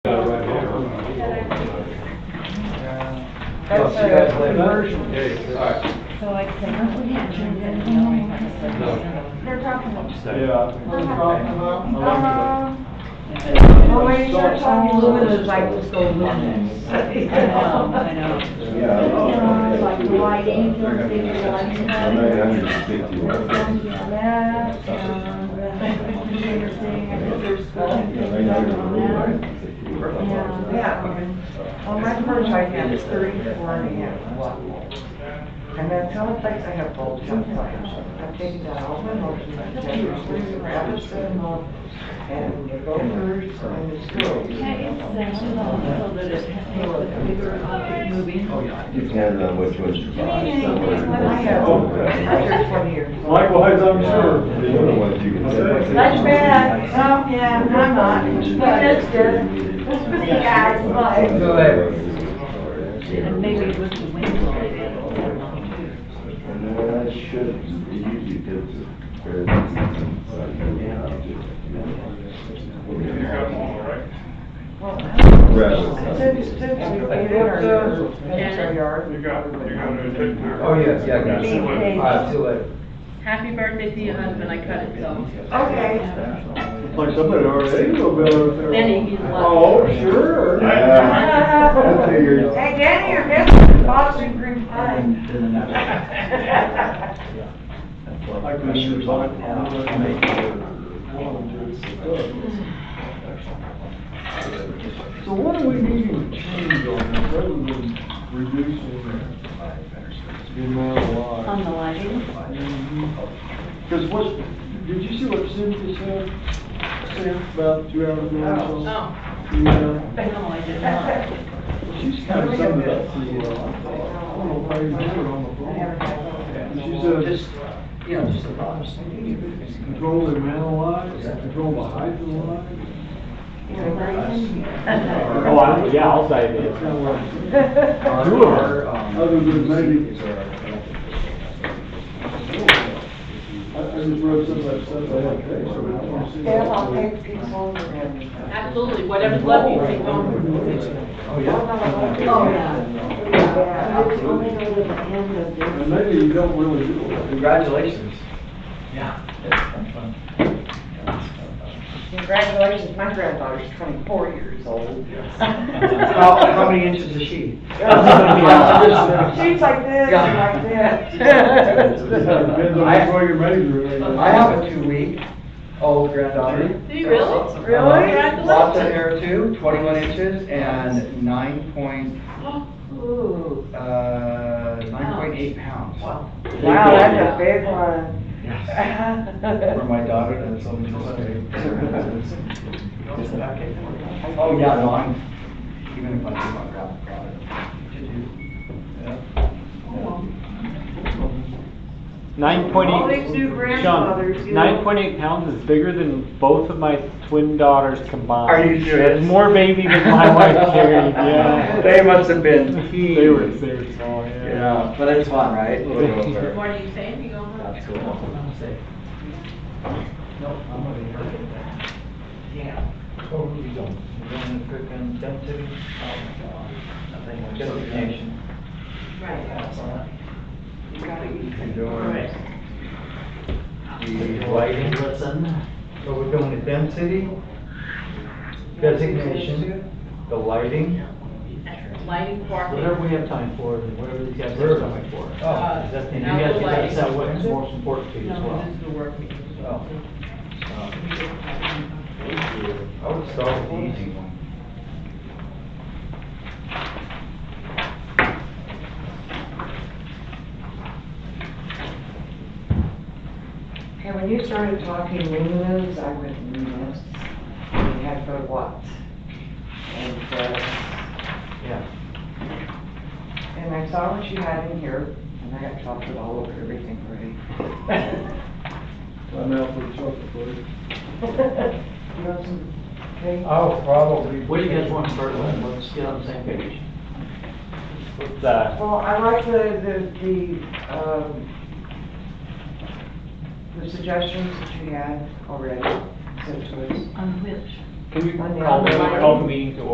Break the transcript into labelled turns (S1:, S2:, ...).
S1: That's
S2: See you guys
S1: a
S2: later.
S1: conversion.
S2: Yeah, yeah, all right.
S3: So I said, oh, yeah, Jordan,
S4: They're talking about.
S1: Yeah. We're talking about-
S4: Uh,
S3: no.
S4: Oh, wait, you're talking
S3: Aluminum is like, let's go aluminum. I know, I know.
S4: uh, Like the white angels, they do like.
S5: I'm not having to speak to you.
S4: That, and the computer thing, I think there's. Yeah, um, on my first I had is thirty-four and a half. And then Teleflex, I have both Teleflex. I've taken that all my motions, I've taken Robertson, and Gophers, and the school.
S3: So that it has a bigger uh, movie.
S5: Depends on which one's your body. Some are more
S4: I have,
S5: sensitive.
S4: after twenty years.
S1: Likewise, I'm
S5: The other
S1: sure.
S5: ones you can.
S4: That's bad. Oh, yeah, I'm not. That's good.
S5: good.
S4: You guys, but-
S5: Go
S3: And maybe it
S5: ahead.
S3: was the wind blowing.
S5: And then I should, it usually gives it very consistent, so I can get out of it. Rather
S4: I
S5: than-
S4: took, took to eight hours, our yard.
S6: You got, you got a tip there.
S2: Oh, yes, yeah, I got
S4: Beef
S2: it.
S4: cake.
S2: All right, see you later.
S3: Happy birthday to your husband, I cut it, so.
S4: Okay.
S1: Like somebody already will go out there.
S3: Benny, he's like-
S1: Oh, sure.
S5: Yeah. I figured.
S4: Hey, Danny, your business, Boston Green Pine.
S1: I can sure talk. So what do we need to change on this, rather than reducing the amount of lives?
S3: On the lighting?
S1: Because what, did you see what Cynthia said, said about two hours ago? or so? Yeah.
S3: No, I did not.
S1: She's kind of summed it up pretty well. I don't know why you do it on the phone. She said,
S7: you know, just the thoughts.
S1: control the mental lives, control the height of the lives.
S8: Oh, I, yeah, I'll say it.
S1: That's not what I
S8: Two of them.
S1: Other
S7: um,
S1: than maybe- I I just wrote some of that stuff I had today, so we don't see.
S4: Yeah, I'll take people and.
S3: Absolutely, whatever's left, you take home.
S2: Oh, yeah.
S3: Oh, yeah.
S4: Yeah,
S1: And maybe you don't really do it.
S2: Congratulations.
S4: Congratulations, my granddaughter's twenty-four years old.
S7: uh, How, how many inches is she?
S4: She's like this, and like
S1: It
S4: that.
S1: Depends on which way you're measuring. it.
S7: I have a two-week old granddaughter. Um,
S3: Do you really?
S4: Really?
S7: Lots of hair too, twenty-one inches and nine point,
S4: Ooh,
S7: uh, nine point eight pounds.
S4: Wow, that's a big one.
S7: For my daughter, that's so much. Oh, yeah, no, I'm, even if I do my grab product.
S8: Nine point
S4: All these new
S8: eight,
S4: grandfathers, you
S8: Sean,
S4: know.
S8: nine point eight pounds is bigger than both of my twin daughters combined.
S7: Are you serious?
S8: More baby than my wife carried, yeah.
S7: They must have been huge.
S8: They were, they were small, yeah.
S7: Yeah, but it's fun, right?
S3: What are you saying? You going home?
S7: That's cool. Nope, I'm over here. Yeah. Totally don't. We're going to freaking dump city. Oh, my God. Nothing more justification.
S3: Right.
S4: You gotta eat.
S7: The lighting, what's on that? So we're going to density, designation, the lighting.
S3: Lighting,
S9: Whatever
S3: parking.
S9: we have time for, and whatever these guys have time for.
S7: Oh,
S9: And you
S3: Now
S9: guys
S3: the
S9: can
S3: lighting.
S9: decide what's most important to you as
S3: No,
S9: well.
S3: this is the work meeting.
S7: Oh.
S9: uh,
S7: I would start with the easy one.
S4: And when you started talking luminous, I went luminous, and you had to go to Watts. And, uh,
S9: Yeah.
S4: and I saw what you had in here, and I got chocolate all over everything already.
S1: I'm out for the chocolate, please.
S4: You want some cake?
S2: I'll probably.
S9: What do you guys want to start with? Let's get on the same page.
S8: What's that?
S4: Well, I like the, the, the, um, the suggestions that you had already, such as
S3: On which?
S8: Can you
S4: On the
S8: call the,
S4: other
S8: call the
S4: line.
S8: meeting to